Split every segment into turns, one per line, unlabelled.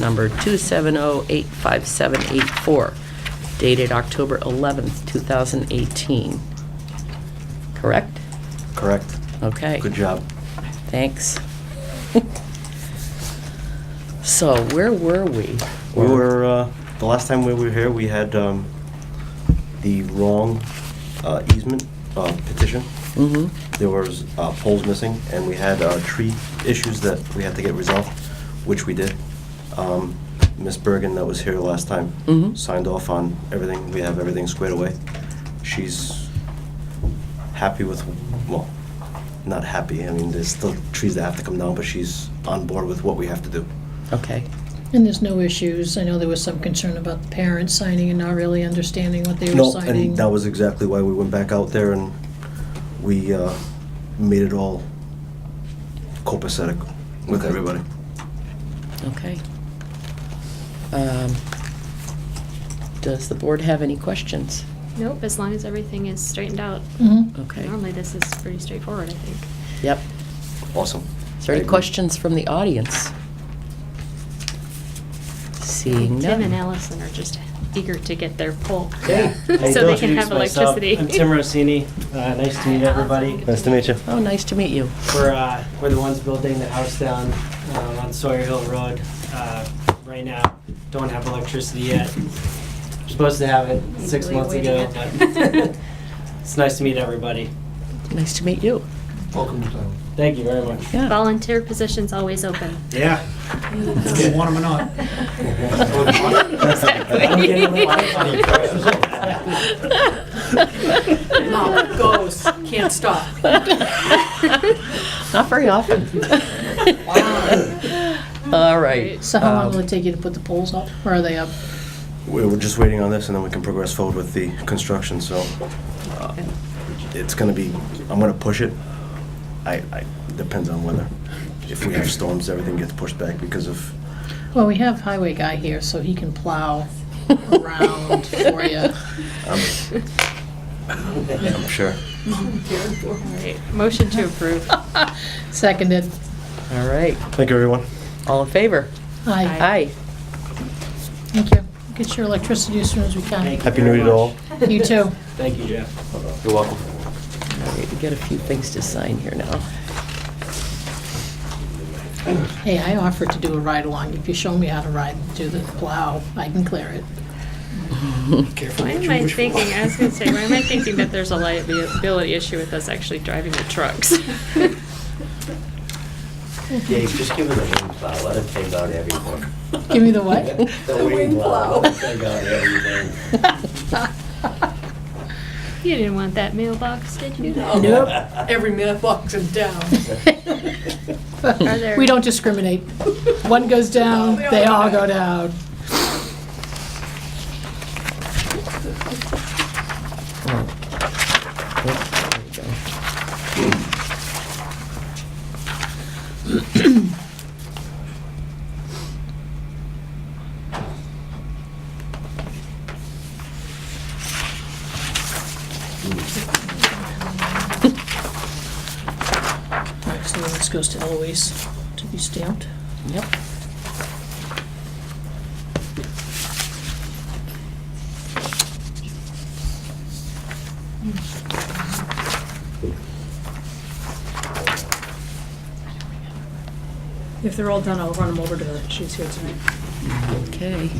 number 270-85784, dated October 11th, 2018. Correct?
Correct.
Okay,
Good job.
thanks. So where were we?
We were, uh, the last time we were here, we had um, the wrong uh, easement uh, petition.
Mhm.
There was uh, poles missing, and we had uh, tree issues that we had to get resolved, which we did. Um, Ms. Bergen, that was here last time,
Mhm.
signed off on everything. We have everything squared away. She's happy with, well, not happy, I mean, there's still trees that have to come down, but she's on board with what we have to do.
Okay,
And there's no issues. I know there was some concern about the parents signing and not really understanding what they were
No,
signing.
and that was exactly why we went back out there and we uh, made it all copacetic with
Okay.
everybody.
okay. Um, Does the board have any questions?
Nope, as long as everything is straightened out.
Mhm.
Okay,
Normally, this is pretty straightforward, I think.
yep.
Awesome.
Is there any
I agree.
questions from the audience? Seeing
Tim and
none.
Allison are just eager to get their pole.
Yeah.
So they can have
Introduce myself.
electricity.
I'm Tim Rossini. Uh, Nice to meet everybody.
Nice to meet you.
Oh, nice to meet you.
We're, uh, we're the ones building the house down um, on Sawyer Hill Road uh, right now. Don't have electricity yet. We're Supposed to have it six
Eagerly
months ago,
waiting.
but it's nice to meet everybody.
Nice to meet you.
Welcome to town.
Thank you very much.
Yeah.
Volunteer positions always open.
Yeah. You want 'em or not?
Exactly.
I'm getting the Wi-Fi
Mom goes, can't stop.
Not very often. All right.
So how long
um,
will it take you to put the poles up? Or are they up?
We We're just waiting on this and then we can progress forward with the construction, so uh, it's gonna be, I'm gonna push it. I, I, depends on weather. If we have storms, everything gets pushed back because of,
Well, we have highway guy here, so he can plow around for you.
I'm um, I'm sure.
Right. Motion to approve.
Seconded.
All right.
Thank you, everyone.
All in favor?
Aye.
Aye.
Thank you. Get your electricity as soon as we can.
Thank
Happy
you
New
very
Year to all.
much.
You too.
Thank you, Jeff.
You're welcome.
All right, we got a few things to sign here now.
Hey, I offered to do a ride-along. If you show me how to ride, do the plow, I can clear it.
Why am I thinking, I was gonna say, why am I thinking that there's a liability issue with us actually driving the trucks?
Dave, just give it a wing plow, let it take out everything.
Give me the what?
The wing plow. let it Take out everything.
You didn't want that mailbox, did you?
Nope. Every mailbox is down.
Are there-
We don't discriminate. One goes down, they all go down. All right, so this goes to Eloise to be stamped.
Yep.
If they're all done, I'll run them over to her. She's here tonight.
Okay.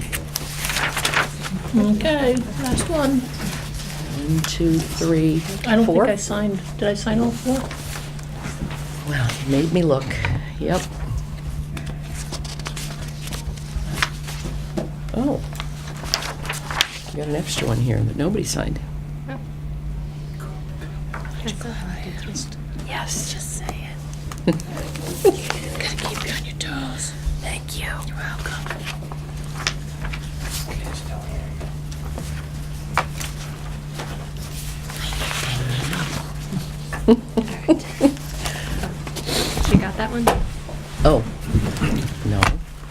Okay, last one.
One, two, three,
I don't think
four.
I signed, did I sign all four?
Well, you made me look. Yep. Oh. We got an extra one here that nobody signed. Yes. Just say it.
Gotta keep you on your toes.
Thank you. You're welcome.
You got that one?
Oh, no.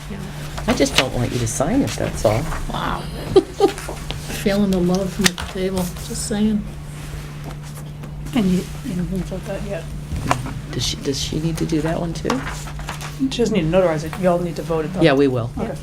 No.
I just don't want you to sign it, that's all.
Wow. Feeling the love from the table, just saying.
And you, you know, haven't filled that yet.
Does she, does she need to do that one too?
She doesn't need to notarize it, you all need to vote it though.
Yeah, we will.
Okay.